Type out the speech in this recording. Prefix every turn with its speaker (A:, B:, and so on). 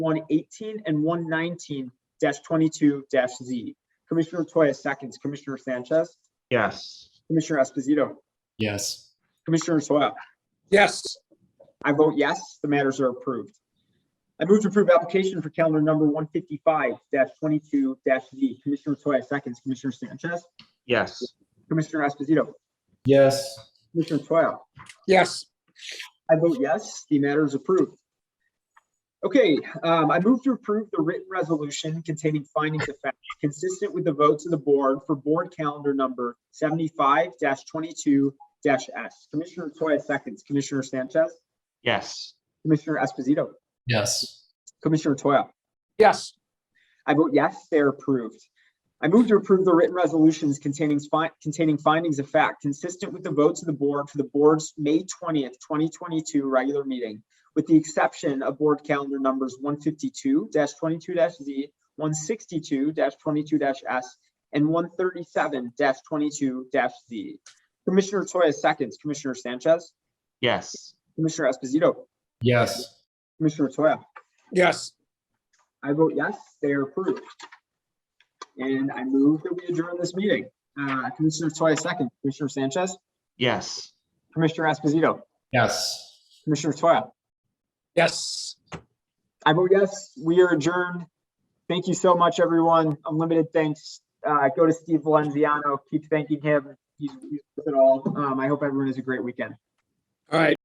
A: one eighteen and one nineteen twenty-two Z. Commissioner Toya seconds, Commissioner Sanchez,
B: Yes.
A: Commissioner Esposito,
C: yes,
A: Commissioner Toya.
D: yes,
A: I vote yes, the matters are approved. I move to approve application for calendar number one fifty-five twenty-two Z. Commissioner Toya seconds, Commissioner Sanchez,
B: Yes.
A: Commissioner Esposito,
C: yes,
A: Commissioner Toya.
D: yes,
A: I vote yes, the matter is approved. Okay, um, I move to approve the written resolution containing findings of fact consistent with the votes of the board for board calendar number seventy-five twenty-two S. Commissioner Toya seconds, Commissioner Sanchez,
B: Yes.
A: Commissioner Esposito,
C: yes,
A: Commissioner Toya.
D: yes,
A: I vote yes, they are approved. I move to approve the written resolutions containing fi- containing findings of fact consistent with the votes of the board for the board's May twentieth, twenty twenty-two regular meeting, with the exception of board calendar numbers one fifty-two twenty-two Z, one sixty-two 22s and one thirty-seven twenty-two Z. Commissioner Toya seconds, Commissioner Sanchez,
B: Yes.
A: Commissioner Esposito,
C: yes,
A: Commissioner Toya.
D: yes,
A: I vote yes, they are approved. And I move that we adjourn this meeting. Uh, Commissioner Toya second, Commissioner Sanchez,
B: Yes.
A: Commissioner Esposito,
C: yes.
A: Commissioner Toya.
D: yes.
A: I vote yes, we are adjourned. Thank you so much, everyone. Unlimited thanks. Uh, go to Steve Valenziano, keep thanking him. He's, he's with it all. Um, I hope everyone has a great weekend.
D: All right.